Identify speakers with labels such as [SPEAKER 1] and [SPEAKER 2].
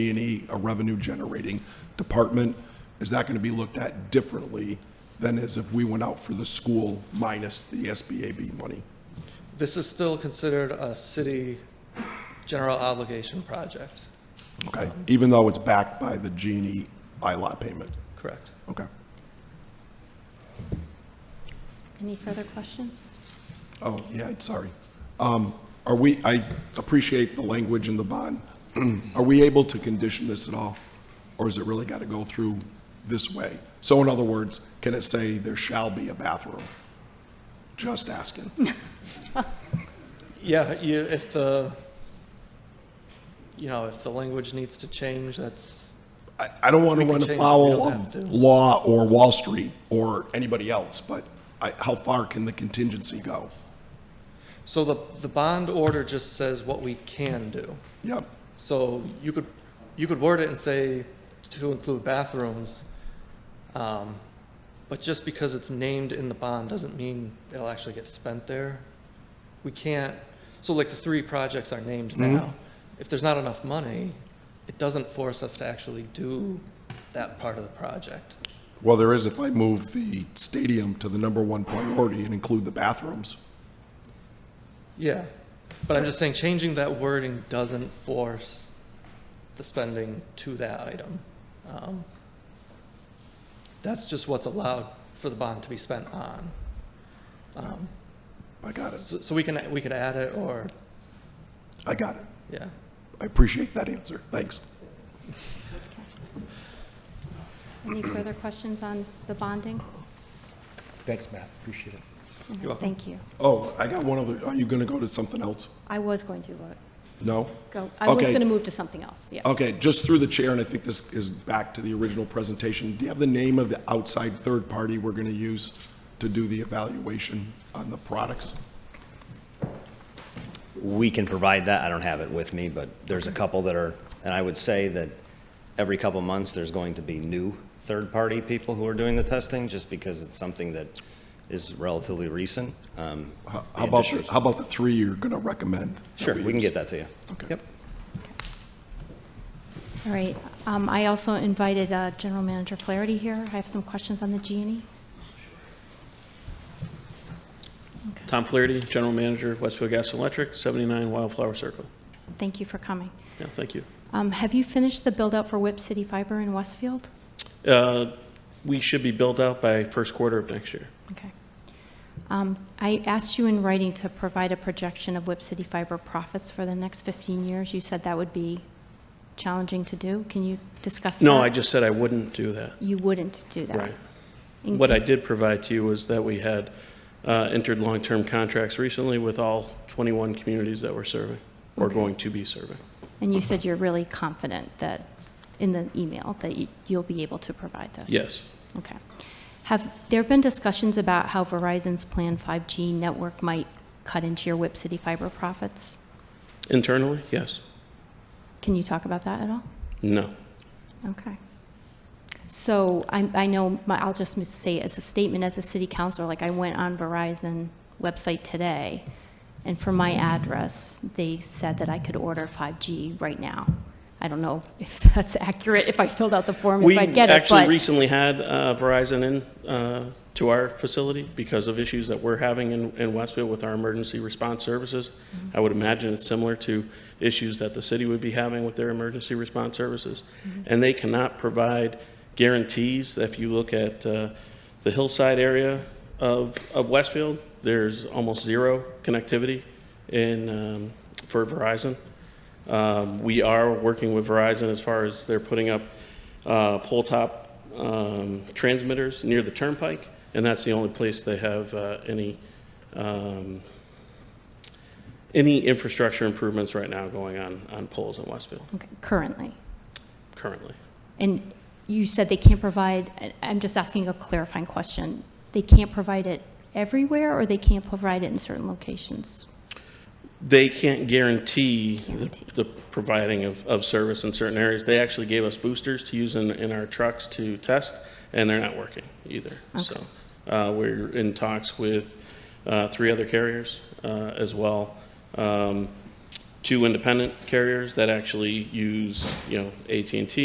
[SPEAKER 1] B and E a revenue generating department? Is that going to be looked at differently than as if we went out for the school minus the SBAB money?
[SPEAKER 2] This is still considered a city general obligation project,
[SPEAKER 1] Okay, even though it's backed by the G and E ILOT payment?
[SPEAKER 2] correct?
[SPEAKER 1] Okay.
[SPEAKER 3] Any further questions?
[SPEAKER 1] Oh, yeah, sorry. Um, Are we, I appreciate the language in the bond. Are we able to condition this at all? Or has it really got to go through this way? So in other words, can it say there shall be a bathroom? Just asking.
[SPEAKER 2] Yeah, you, if the, you know, if the language needs to change, that's,
[SPEAKER 1] I, I don't want to
[SPEAKER 2] We can
[SPEAKER 1] run
[SPEAKER 2] change it, we
[SPEAKER 1] afoul
[SPEAKER 2] don't have
[SPEAKER 1] of
[SPEAKER 2] to.
[SPEAKER 1] law or Wall Street or anybody else, but I, how far can the contingency go?
[SPEAKER 2] so the, the bond order just says what we can do.
[SPEAKER 1] Yep,
[SPEAKER 2] So you could, you could word it and say to include bathrooms, um, but just because it's named in the bond doesn't mean it'll actually get spent there. We can't, so like the three projects are named now. If there's not enough money, it doesn't force us to actually do that part of the project.
[SPEAKER 1] well, there is if I move the stadium to the number one priority and include the bathrooms.
[SPEAKER 2] Yeah, but I'm just saying changing that wording doesn't force the spending to that item. Um, That's just what's allowed for the bond to be spent on.
[SPEAKER 1] I got it.
[SPEAKER 2] So, so we can, we could add it or,
[SPEAKER 1] I got it.
[SPEAKER 2] yeah.
[SPEAKER 1] I appreciate that answer. Thanks.
[SPEAKER 3] Any further questions on the bonding?
[SPEAKER 4] Thanks, Matt, appreciate it.
[SPEAKER 2] You're welcome.
[SPEAKER 3] Thank you.
[SPEAKER 1] Oh, I got one other, are you going to go to something else?
[SPEAKER 3] I was going to vote-
[SPEAKER 1] No?
[SPEAKER 3] go, I was
[SPEAKER 1] Okay.
[SPEAKER 3] going to move to something else, yeah.
[SPEAKER 1] Okay, just through the chair, and I think this is back to the original presentation. Do you have the name of the outside third party we're going to use to do the evaluation on the products?
[SPEAKER 5] We can provide that. I don't have it with me, but there's a couple that are, and I would say that every couple months, there's going to be new third-party people who are doing the testing, just because it's something that is relatively recent. Um,
[SPEAKER 1] How
[SPEAKER 5] the
[SPEAKER 1] how about, the-
[SPEAKER 5] addition-
[SPEAKER 1] how about the three you're going to recommend? that
[SPEAKER 5] Sure, we can
[SPEAKER 1] use?
[SPEAKER 5] get that to you.
[SPEAKER 1] Okay.
[SPEAKER 5] Yep.
[SPEAKER 3] All right, um, I also invited uh, General Manager Flaherty here. I have some questions on the G and E.
[SPEAKER 6] Tom Flaherty, General Manager, Westfield Gas and Electric, 79 Wildflower Circle.
[SPEAKER 3] Thank you for coming.
[SPEAKER 6] Yeah, thank you.
[SPEAKER 3] Um, Have you finished the build-out for Whip City Fiber in Westfield?
[SPEAKER 6] Uh, We should be built out by first quarter of next year.
[SPEAKER 3] Okay. Um, I asked you in writing to provide a projection of Whip City Fiber profits for the next 15 years. You said that would be challenging to do. Can you discuss that?
[SPEAKER 6] No, I just said I wouldn't do that.
[SPEAKER 3] You wouldn't do that.
[SPEAKER 6] Right.
[SPEAKER 3] And
[SPEAKER 6] What
[SPEAKER 3] can-
[SPEAKER 6] I did provide to you was that we had uh, entered long-term contracts recently with all 21 communities that we're serving, or going to be serving.
[SPEAKER 3] And you said you're really confident that, in the email, that you- you'll be able to provide this?
[SPEAKER 6] Yes.
[SPEAKER 3] Okay. Have there been discussions about how Verizon's Plan 5G network might cut into your Whip City fiber profits?
[SPEAKER 6] Internally, yes.
[SPEAKER 3] Can you talk about that at all?
[SPEAKER 6] No.
[SPEAKER 3] Okay. So I, I know, my- I'll just mis- say as a statement, as a city councilor, like I went on Verizon website today, and for my address, they said that I could order 5G right now. I don't know if that's accurate, if I filled out the form, if I'd get
[SPEAKER 6] We
[SPEAKER 3] it,
[SPEAKER 6] actually
[SPEAKER 3] but,
[SPEAKER 6] recently had uh, Verizon in uh, to our facility because of issues that we're having in, in Westfield with our emergency response services.
[SPEAKER 3] Mm-hmm.
[SPEAKER 6] I would imagine it's similar to issues that the city would be having with their emergency response services.
[SPEAKER 3] Mm-hmm.
[SPEAKER 6] And they cannot provide guarantees. If you look at uh, the hillside area of, of Westfield, there's almost zero connectivity in, um, for Verizon. Um, We are working with Verizon as far as they're putting up uh, pole-top um, transmitters near the turnpike, and that's the only place they have uh, any, um, any infrastructure improvements right now going on, on poles in Westfield
[SPEAKER 3] Okay, currently.
[SPEAKER 6] currently.
[SPEAKER 3] And you said they can't provide, I- I'm just asking a clarifying question. They can't provide it everywhere, or they can't provide it in certain locations?
[SPEAKER 6] They can't guarantee
[SPEAKER 3] Guarantee.
[SPEAKER 6] the the providing of, of service in certain areas. They actually gave us boosters to use in, in our trucks to test, and they're not working either. So uh, we're in talks with uh, three other carriers uh, as well. Um, two independent carriers that actually use, you know, at and T.